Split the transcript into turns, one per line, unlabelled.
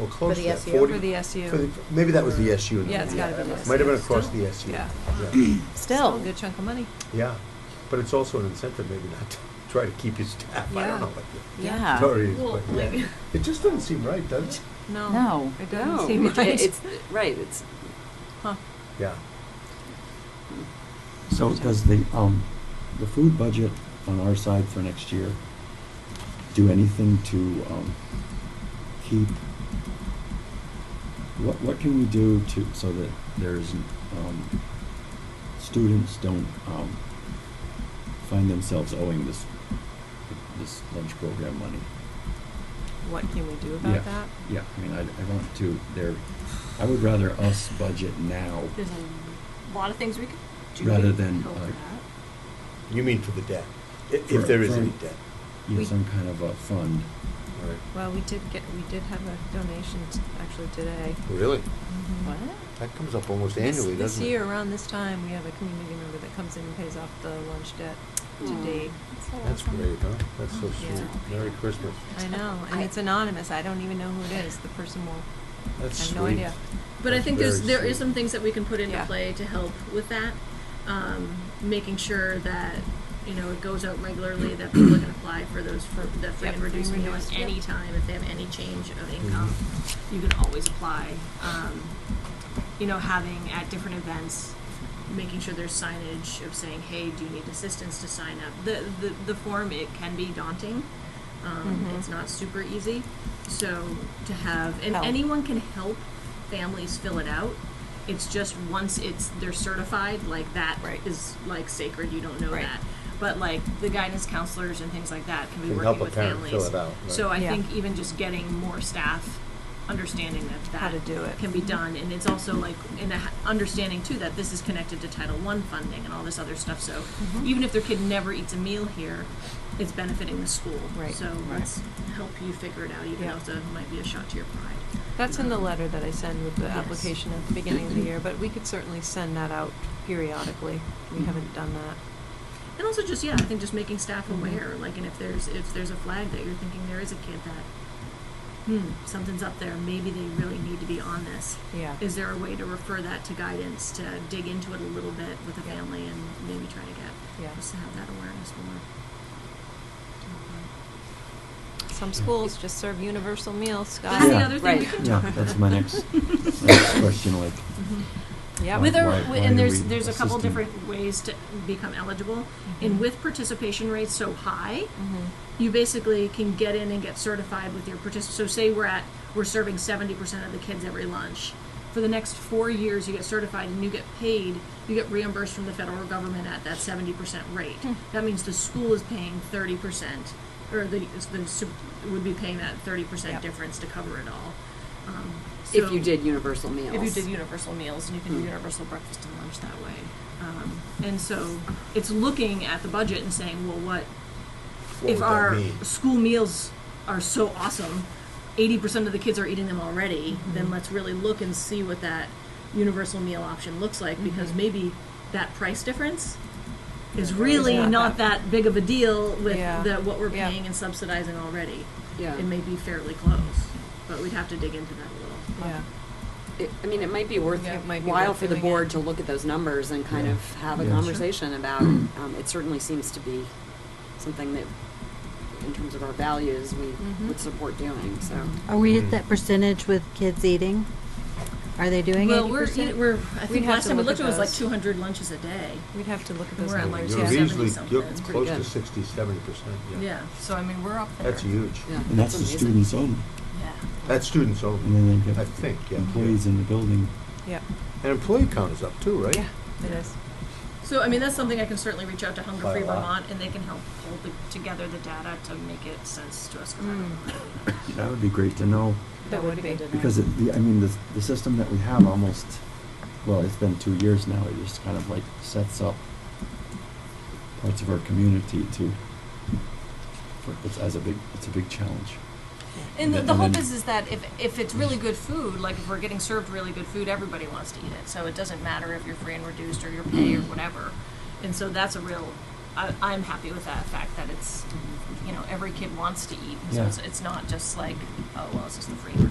or close to
the
that,
SU?
forty.
for the
for
SU.
the- Maybe that was the SU. in the
Yeah, it's
beginning.
gotta be the SU.
Might have been across the SU.
Yeah.
Yeah.
Still a
Still,
good chunk of money.
Yeah, but it's also an incentive maybe not to try to keep your staff, I
Yeah.
don't know what the
yeah.
story is, but yeah. It just doesn't seem right, does it?
No.
No.
It
No,
doesn't seem
it-
right.
It's, right, it's,
Huh.
Yeah,
So does the, um, the food budget on our side for next year do anything to, um, keep, what, what can we do to, so that there's, um, students don't, um, find themselves owing this, this lunch program money?
What can we do about that?
Yeah, I mean, I, I want to, there, I would rather us budget now
There's a lot of things we could do. to
rather than,
help
uh,
that.
you mean for the debt, i-
For-
if there is
for-
any debt,
you know,
We-
some kind of a fund.
right?
Well, we did get, we did have a donation t- actually today.
Really?
Mm-hmm.
Mhm.
What?
That comes up almost
This-
annually, doesn't it?
This year, around this time, we have a community member that comes in and pays off the lunch debt
Mm.
to
Aw.
date.
That's great, huh? That's so
Oh, Yeah.
sweet. Merry Christmas.
I know, and
I-
it's anonymous. I don't even know who it is. The person will, I
That's
have
sweet.
no idea.
But I
That's
think there's
very
there is
sweet.
some things that we can put into
Yeah.
play to help with that. Um, making sure that you know it goes out regularly that people can apply for those for that free
Yep,
and reduced
free and
meal at
reduced, yep.
any time if they have any change of income, you can always apply. Um, you know, having at different events, making sure there's signage of saying, "Hey, do you need assistance to sign up?" The the, the form it can be daunting. Um,
Mhm.
It's not super easy, so to have and
Help.
anyone can help families fill it out. It's just once it's they're certified, like that is
Right.
like sacred. You don't know
Right.
that, but like the guidance counselors and things like that can be
Can
working
help a
with
parent
families.
fill it out, right.
So I
Yeah.
think even just getting more staff, understanding that that
How to do it.
can be done, and it's also like in a, understanding too that this is connected to Title One funding and all this other stuff. So
Mm-hmm.
even if their kid never eats a meal here, it's benefiting the school.
Right.
So let's help you figure it out, even
Yeah.
though it might be a shot to your pride.
that's in the letter that I send with the
Yes.
application at the beginning of the year, but we could certainly send that out periodically. We haven't done that.
And also just yeah, I think just making staff aware, like, and if there's if there's a flag that you're thinking there is a kid that, hmm, something's up there, maybe they really need to be on this.
Yeah.
Is there a way to refer that to guidance to dig into it a little bit with a
Yeah.
family and maybe try to get
Yeah.
just to have that awareness more.
Some schools just serve universal meals, Scott.
That's
Yeah.
the other thing we
Right.
can
Yeah,
talk about.
that's my next, my next question, like,
Yep.
With
With
Why-
or,
why do
and there's
we
there's a couple
assist them?
different ways to become eligible, and with participation rates so high,
Mm-hmm.
you basically can get in and get certified with your partic. So say we're at we're serving seventy percent of the kids every lunch. For the next four years, you get certified and you get paid. You get reimbursed from the federal government at that seventy percent rate.
Hmm.
That means the school is paying thirty percent, or the, the sup- would be paying that thirty
Yep.
percent difference to cover it all. Um,
if
so-
you did universal meals. Hmm.
if you did universal meals and you can do universal breakfast and lunch that way. Um, and so it's looking at the budget and saying, well, what,
What would
if
that
our
mean?
school meals are so awesome, 80% of the kids are eating them already,
Mm-hmm.
then let's really look and see what that universal meal option looks like
Mm-hmm.
because maybe that price difference is really
not
not, that. big of a deal with
Yeah.
the, what we're
Yeah.
paying and subsidizing already.
Yeah.
It may be fairly close, but we'd have to dig into that a little.
Yeah.
It- I mean, it might be worth
Yeah, it might be
while
worth
for the
doing it.
board to look at those numbers and kind
Yeah.
of have a
Yeah. Sure.
conversation about, um, it certainly seems to be something that, in terms of our values, we
Mm-hmm.
would support doing, so.
Are we at that percentage with kids eating? Are they doing
Well,
eighty
we're,
percent?
we're, I
We'd
think
have
last
to
time we
look
looked
at
at it was like
those.
two hundred lunches a day.
We'd have to look at those
We're at
numbers.
like
You're
yeah.
70
easily- You're
something. It's pretty
close to
good.
sixty, seventy percent, yeah.
Yeah,
So I mean, we're up there.
That's huge.
yeah,
and that's the
amazing.
students only,
yeah.
That's students
and
only,
then they
Oh. I
get
think, yeah.
employees in the building.
Yeah.
And employee count is up too, right?
Yeah. It is.
So, I mean, that's something I can certainly reach out to Hunger
By a
Free
lot.
Vermont and they can help pull the, together the data to make it sense to us. 'cause I don't know.
That would be great to know,
That would be.
because it, the, I mean, the, the system that we have almost, well, it's been two years now, it just kind of like sets up parts of our community to, for, it's as a big, it's a big challenge.
And the,
And
the
then-
hope is, is that if, if it's really good food, like if we're getting served really good food, everybody wants to eat it. So it doesn't matter if you're free and reduced or your pay or whatever. And so that's a real, I, I'm happy with that fact that it's, you know, every kid wants to eat. So
Yeah.
it's, it's not just like, oh, well, it's just the free version.